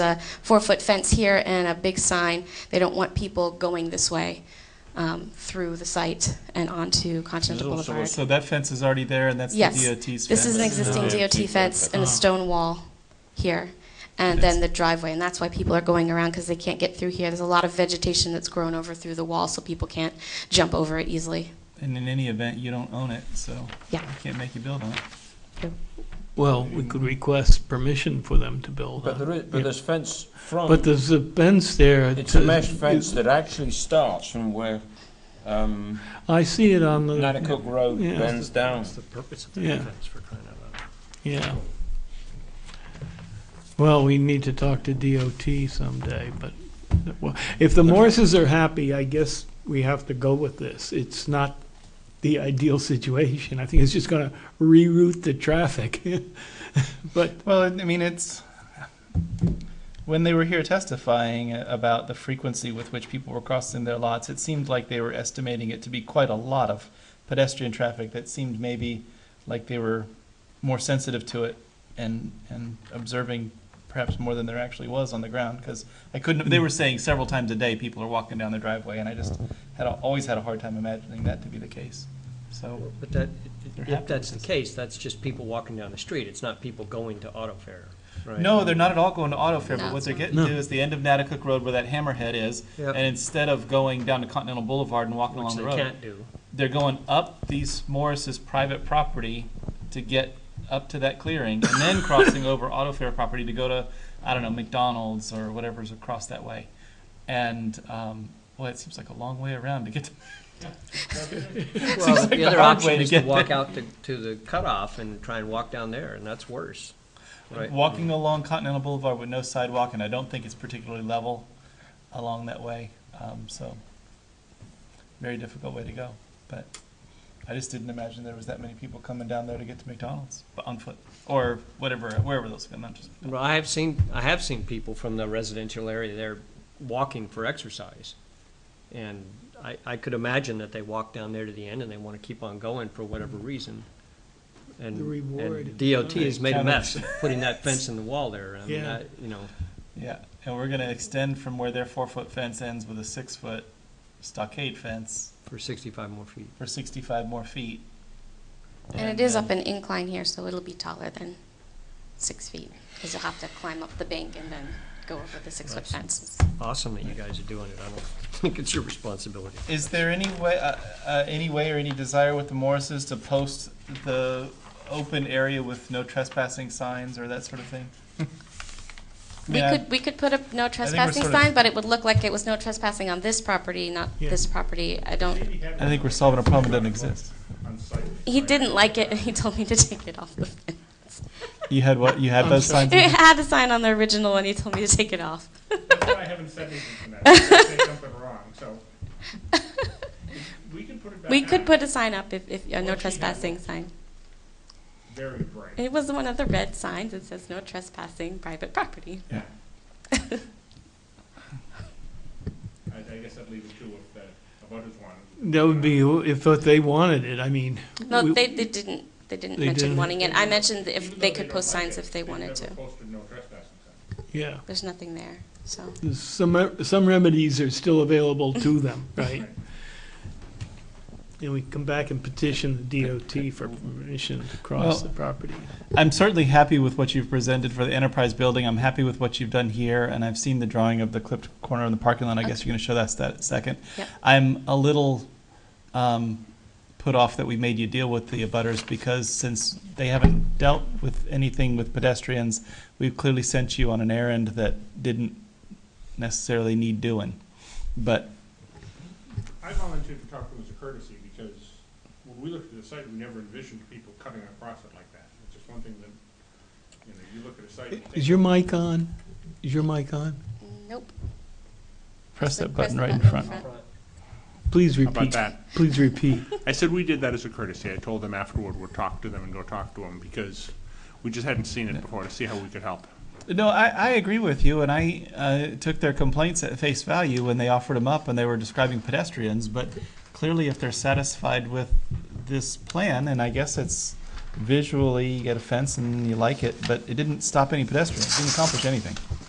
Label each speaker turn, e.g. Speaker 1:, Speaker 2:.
Speaker 1: a four-foot fence here and a big sign. They don't want people going this way um, through the site and onto Continental
Speaker 2: So- so-
Speaker 1: Boulevard.
Speaker 2: So that fence is already there, and that's the
Speaker 1: Yes.
Speaker 2: DOT's fence?
Speaker 1: This is an existing
Speaker 2: Uh,
Speaker 1: DOT fence and a stone wall here, and then the driveway, and that's why people are going around, because they can't get through here. There's a lot of vegetation that's grown over through the wall, so people can't jump over it easily.
Speaker 2: And in any event, you don't own it, so
Speaker 1: Yeah.
Speaker 2: I can't make you build on it.
Speaker 3: Well, we could request permission for them to build
Speaker 4: But
Speaker 3: on.
Speaker 4: there is, but there's fence
Speaker 3: But
Speaker 4: from,
Speaker 3: there's a fence there.
Speaker 4: it's a mesh fence that actually starts from where, um,
Speaker 3: I see it on the,
Speaker 4: Natticook Road
Speaker 3: Yeah.
Speaker 4: bends down.
Speaker 5: That's the purpose of the
Speaker 3: Yeah.
Speaker 5: defense for crying out loud.
Speaker 3: yeah. Well, we need to talk to DOT someday, but, well, if the Morrises are happy, I guess we have to go with this. It's not the ideal situation. I think it's just gonna reroute the traffic. But
Speaker 2: Well, I mean, it's, when they were here testifying about the frequency with which people were crossing their lots, it seemed like they were estimating it to be quite a lot of pedestrian traffic that seemed maybe like they were more sensitive to it and, and observing perhaps more than there actually was on the ground, because I couldn't, they were saying several times a day, people are walking down their driveway, and I just had, a- always had a hard time imagining that to be the case, so.
Speaker 5: But that,
Speaker 2: They're happy
Speaker 5: if that's the
Speaker 2: with this.
Speaker 5: case, that's just people walking down the street. It's not people going to auto fair, right?
Speaker 2: No, they're not at all going to auto fair, but
Speaker 1: No.
Speaker 2: what they're getting to do is the end of Natticook Road where that hammerhead is,
Speaker 5: Yep.
Speaker 2: and instead of going down to Continental Boulevard and walking
Speaker 5: Which
Speaker 2: along the
Speaker 5: they
Speaker 2: road,
Speaker 5: can't do.
Speaker 2: they're going up these Morris's private property to get up to that clearing, and then crossing over auto fair property to go to, I don't know, McDonald's or whatever's across that way. And, um, boy, it seems like a long way around to get to,
Speaker 5: Well,
Speaker 2: like
Speaker 5: the
Speaker 2: the
Speaker 5: other
Speaker 2: hard way
Speaker 5: option
Speaker 2: to
Speaker 5: is to
Speaker 2: get
Speaker 5: walk
Speaker 2: there.
Speaker 5: out to, to the cutoff and try and walk down there, and that's worse, right?
Speaker 2: walking along Continental Boulevard with no sidewalk, and I don't think it's particularly level along that way. Um, so, very difficult way to go. But I just didn't imagine there was that many people coming down there to get to McDonald's but on foot or whatever, wherever those come. Not just
Speaker 5: Well, I have seen, I have seen people from the residential area there walking for exercise. And I, I could imagine that they walk down there to the end and they want to keep on going for whatever reason. And
Speaker 3: The reward.
Speaker 5: and DOT has made a
Speaker 2: Kind of-
Speaker 5: mess of putting that fence in the wall there. I mean,
Speaker 3: Yeah.
Speaker 5: I- you know,
Speaker 2: yeah. And we're gonna extend from where their four foot fence ends with a six foot stockade fence
Speaker 5: for sixty-five more feet.
Speaker 2: for sixty five more feet.
Speaker 1: And it is
Speaker 2: then-
Speaker 1: up an incline here, so it'll be taller than six feet, because you'll have to climb up the bank and then go over the six-foot
Speaker 5: Nice.
Speaker 1: fence.
Speaker 5: Awesome that you guys are doing it. I don't think it's your responsibility.
Speaker 2: Is there any way, uh, uh, any way or any desire with the Morrises to post the open area with no trespassing signs or that sort of thing?
Speaker 1: We
Speaker 2: Yeah.
Speaker 1: could, we could put a no trespassing
Speaker 2: sort of-
Speaker 1: sign, but it would look like it was no trespassing on this property, not
Speaker 3: Yeah.
Speaker 1: this property. I don't,
Speaker 2: I think we're solving a problem that doesn't exist.
Speaker 1: He didn't like it, and he told me to take it off the fence.
Speaker 2: You had what? You had those signs?
Speaker 1: It had a sign on the original, and he told me to take it off.
Speaker 6: That's why I haven't said anything to that. I say something wrong, so. We can put it back.
Speaker 1: We could
Speaker 6: on.
Speaker 1: put a sign up if, if a
Speaker 6: Well, she
Speaker 1: no
Speaker 6: had
Speaker 1: trespassing sign.
Speaker 6: Very bright.
Speaker 1: It was one of the red signs that says no trespassing private property.
Speaker 6: Yeah. I, I guess I'd leave it to if the abutters wanted.
Speaker 3: that would be, if they wanted it, I mean.
Speaker 1: No,
Speaker 3: we-
Speaker 1: they, they didn't, they didn't
Speaker 3: They
Speaker 1: mention
Speaker 3: didn't.
Speaker 1: wanting it. I mentioned if
Speaker 6: Even
Speaker 1: they
Speaker 6: though
Speaker 1: could
Speaker 6: don't
Speaker 1: post
Speaker 6: like
Speaker 1: signs
Speaker 6: it,
Speaker 1: if they
Speaker 6: they've
Speaker 1: wanted
Speaker 6: never
Speaker 1: to.
Speaker 6: Posted no trespassing sign.
Speaker 3: Yeah.
Speaker 1: There's nothing there, so.
Speaker 3: some, some remedies are still available to them, right? And we come back and petition the DOT for permission to cross
Speaker 2: Well-
Speaker 3: the property.
Speaker 2: I'm certainly happy with what you've presented for the enterprise building. I'm happy with what you've done here, and I've seen the drawing of the clipped corner in the parking lot. I guess you're going to show us that second.
Speaker 1: Yep.
Speaker 2: I'm a little um, put off that we made you deal with the abutters because since they haven't dealt with anything with pedestrians, we've clearly sent you on an errand that didn't necessarily need doing. But
Speaker 6: I volunteered to talk to him as a courtesy because when we looked at the site, we never envisioned people cutting across it like that. It's just one thing that, you know, you look at a site. and
Speaker 3: Is
Speaker 6: think,
Speaker 3: your mic on? Is your mic on?
Speaker 1: Nope.
Speaker 2: press
Speaker 1: So
Speaker 2: that button
Speaker 1: press
Speaker 2: right
Speaker 1: the
Speaker 2: in
Speaker 1: button
Speaker 2: front.
Speaker 3: Please
Speaker 6: How about
Speaker 3: repeat.
Speaker 6: that?
Speaker 3: Please repeat.
Speaker 6: I said we did that as a courtesy. I told them afterward, we'll talk to them and go talk to them because we just hadn't seen it before to see how we could help.
Speaker 2: No, I, I agree with you, and I uh, took their complaints at face value when they offered them up and they were describing pedestrians. But clearly, if they're satisfied with this plan, and I guess it's visually you get a fence and you like it, but it didn't stop any pedestrians, didn't accomplish anything.